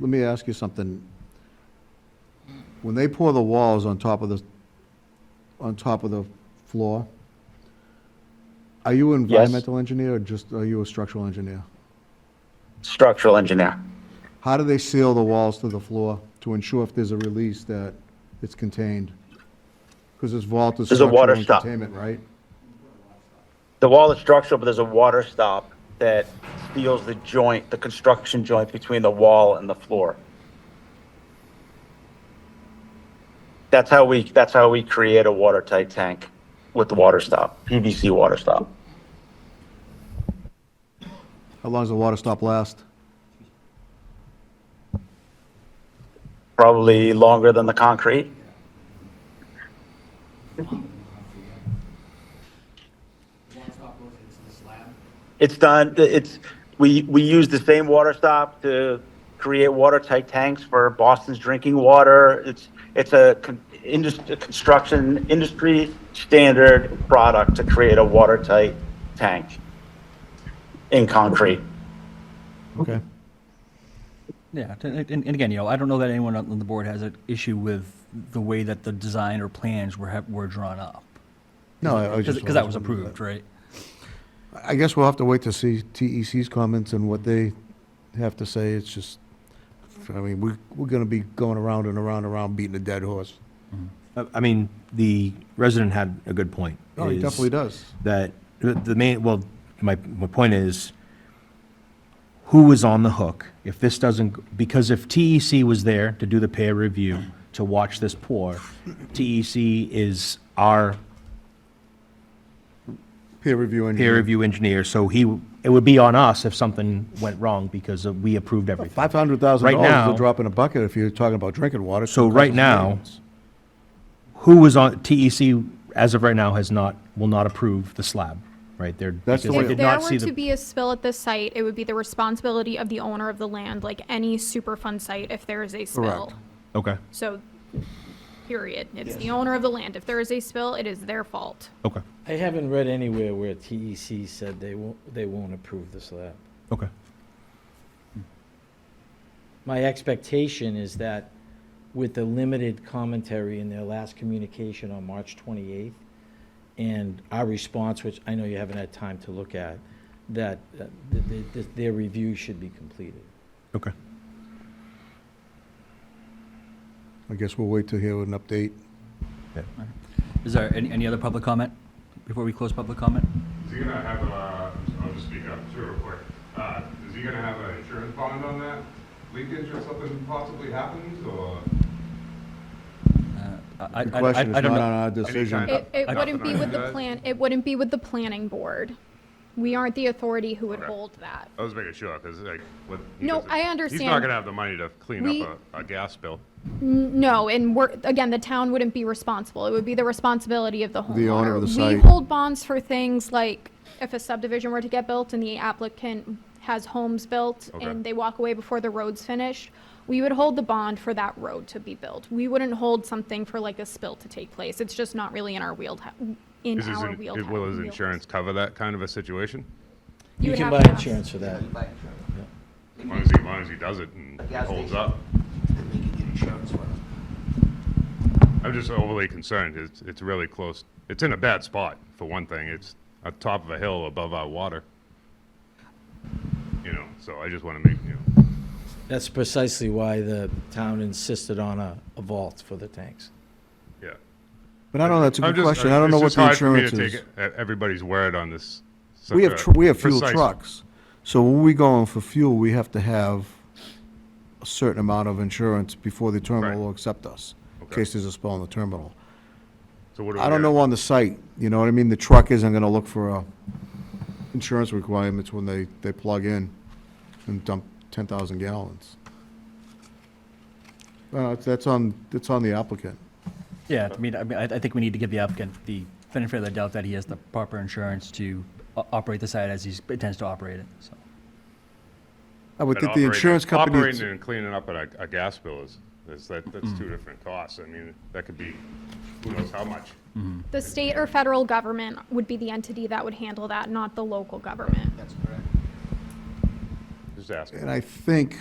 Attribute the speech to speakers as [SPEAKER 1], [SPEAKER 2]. [SPEAKER 1] let me ask you something. When they pour the walls on top of the, on top of the floor, are you an
[SPEAKER 2] Yes.
[SPEAKER 1] environmental engineer or just, are you a structural engineer?
[SPEAKER 2] Structural engineer.
[SPEAKER 1] How do they seal the walls to the floor to ensure if there's a release that it's contained? Because this vault is
[SPEAKER 2] There's a water
[SPEAKER 1] structural and
[SPEAKER 2] stop.
[SPEAKER 1] containment, right?
[SPEAKER 2] The wall is structural, but there's a water stop that seals the joint, the construction joint between the wall and the floor. That's how we, that's how we create a watertight tank with the water stop, PVC water stop.
[SPEAKER 1] How long does the water stop last?
[SPEAKER 2] Probably longer than the concrete. It's done, it's, we, we use the same water stop to create watertight tanks for Boston's drinking water. It's, it's a industry, construction industry standard product to create a watertight tank in concrete.
[SPEAKER 1] Okay.
[SPEAKER 3] Yeah, t- and, and again, you know, I don't know that anyone on the board has an issue with the way that the design or plans were, ha- were drawn up.
[SPEAKER 1] No, I I was just.
[SPEAKER 3] Because that was approved, right?
[SPEAKER 1] I guess we'll have to wait to see TEC's comments and what they have to say. It's just, I mean, we, we're gonna be going around and around and around beating a dead horse.
[SPEAKER 4] I I mean, the resident had a good point.
[SPEAKER 1] No, Oh, he
[SPEAKER 4] is
[SPEAKER 1] definitely does.
[SPEAKER 4] That, the- the main, well, my, my point is, who is on the hook if this doesn't, because if TEC was there to do the peer review, to watch this pour, TEC is our
[SPEAKER 1] Peer review
[SPEAKER 4] peer
[SPEAKER 1] engineer.
[SPEAKER 4] review engineer, so he, it would be on us if something went wrong because of- we approved everything.
[SPEAKER 1] Five hundred thousand
[SPEAKER 4] Right
[SPEAKER 1] dollars is
[SPEAKER 4] now-
[SPEAKER 1] a drop in a bucket if you're talking about drinking water.
[SPEAKER 4] So
[SPEAKER 1] It
[SPEAKER 4] right
[SPEAKER 1] costs
[SPEAKER 4] now,
[SPEAKER 1] millions.
[SPEAKER 4] who was on, TEC, as of right now, has not, will not approve the slab, right? They're,
[SPEAKER 1] That's
[SPEAKER 4] because
[SPEAKER 1] the
[SPEAKER 4] they
[SPEAKER 1] way-
[SPEAKER 4] did
[SPEAKER 5] If there
[SPEAKER 4] not see
[SPEAKER 5] were
[SPEAKER 4] the.
[SPEAKER 5] to be a spill at this site, it would be the responsibility of the owner of the land, like any Superfund site, if there is a spill.
[SPEAKER 1] Correct.
[SPEAKER 4] Okay,
[SPEAKER 5] So, period. It's the owner of the land. If there is a spill, it is their fault.
[SPEAKER 4] okay,
[SPEAKER 6] I haven't read anywhere where TEC said they won't, they won't approve the slab.
[SPEAKER 4] okay.
[SPEAKER 6] My expectation is that with the limited commentary in their last communication on March 28th, and our response, which I know you haven't had time to look at, that uh, th- th- th- their review should be completed.
[SPEAKER 4] Okay.
[SPEAKER 1] I guess we'll wait to hear an update.
[SPEAKER 3] Is there any, any other public comment before we close public comment?
[SPEAKER 7] Is he gonna have a, I'll just speak up too real quick. Uh, is he gonna have an insurance bond on that leakage or something possibly happens or?
[SPEAKER 3] Uh, I, I,
[SPEAKER 1] The
[SPEAKER 3] I,
[SPEAKER 1] question
[SPEAKER 3] I
[SPEAKER 1] is
[SPEAKER 3] don't
[SPEAKER 1] not on
[SPEAKER 3] know.
[SPEAKER 1] our
[SPEAKER 7] Any
[SPEAKER 1] decision.
[SPEAKER 7] kind
[SPEAKER 5] It, it
[SPEAKER 7] I-
[SPEAKER 5] wouldn't be
[SPEAKER 7] I-
[SPEAKER 5] with the
[SPEAKER 7] Guys?
[SPEAKER 5] plan, it wouldn't be with the planning board. We aren't the authority who would
[SPEAKER 7] Okay.
[SPEAKER 5] hold that.
[SPEAKER 7] I was making sure, cause like, what.
[SPEAKER 5] No,
[SPEAKER 7] because
[SPEAKER 5] I
[SPEAKER 7] He's not
[SPEAKER 5] understand.
[SPEAKER 7] gonna have the money to clean
[SPEAKER 5] We-
[SPEAKER 7] up a, a gas bill.
[SPEAKER 5] N- No, and we're, again, the town wouldn't be responsible. It would be the responsibility of the homeowner.
[SPEAKER 1] The owner of the
[SPEAKER 5] We
[SPEAKER 1] site.
[SPEAKER 5] hold bonds for things like if a subdivision were to get built and the applicant has homes built
[SPEAKER 7] Okay.
[SPEAKER 5] and they walk away before the road's finished, we would hold the bond for that road to be built. We wouldn't hold something for like a spill to take place. It's just not really in our wheelhouse, in
[SPEAKER 7] Is his,
[SPEAKER 5] our
[SPEAKER 7] in-
[SPEAKER 5] wheelhouse.
[SPEAKER 7] will his insurance cover that kind of a situation?
[SPEAKER 6] You
[SPEAKER 5] would
[SPEAKER 6] can
[SPEAKER 5] have
[SPEAKER 6] buy
[SPEAKER 5] to ask.
[SPEAKER 6] insurance for that.
[SPEAKER 8] by insurance.
[SPEAKER 7] As long as he, as long as he does it and
[SPEAKER 8] A
[SPEAKER 7] it
[SPEAKER 8] gas
[SPEAKER 7] holds
[SPEAKER 8] station.
[SPEAKER 7] up.
[SPEAKER 8] That they can get insurance for.
[SPEAKER 7] I'm just overly concerned. It's, it's really close. It's in a bad spot, for one thing. It's at top of a hill above our water. You know, so I just wanna make, you know.
[SPEAKER 6] That's precisely why the town insisted on a a vault for the tanks.
[SPEAKER 7] Yeah.
[SPEAKER 1] But I don't know, that's a
[SPEAKER 7] I'm
[SPEAKER 1] good
[SPEAKER 7] just-
[SPEAKER 1] question. I don't
[SPEAKER 7] it's
[SPEAKER 1] know what
[SPEAKER 7] just
[SPEAKER 1] the
[SPEAKER 7] hard for me to
[SPEAKER 1] insurance is.
[SPEAKER 7] take e- Everybody's word on this. such
[SPEAKER 1] We have,
[SPEAKER 7] a
[SPEAKER 1] tr- we have fuel
[SPEAKER 7] precise-
[SPEAKER 1] trucks. So when we go in for fuel, we have to have a certain amount of insurance before the
[SPEAKER 7] Right.
[SPEAKER 1] terminal will accept us, in
[SPEAKER 7] Okay.
[SPEAKER 1] case there's a spill on the terminal.
[SPEAKER 7] So what do we
[SPEAKER 1] I don't
[SPEAKER 7] get?
[SPEAKER 1] know on the site, you know what I mean? The truck isn't gonna look for, uh, insurance requirements when they, they plug in and dump ten thousand gallons. Uh, that's on, that's on the applicant.
[SPEAKER 3] Yeah, I mean, I, mean, I I think we need to give the applicant the benefit of the doubt that he has the proper insurance to o- operate the site as he intends to operate it, so.
[SPEAKER 1] I would
[SPEAKER 7] But
[SPEAKER 1] think the
[SPEAKER 7] operating-
[SPEAKER 1] insurance company. Mm.
[SPEAKER 7] Operating and cleaning up a, a gas bill is, is that, that's two different costs. I mean, that could be, who knows how much.
[SPEAKER 5] The state or federal government would be the entity that would handle that, not the local government.
[SPEAKER 8] That's correct.
[SPEAKER 7] Just asking.
[SPEAKER 1] And I think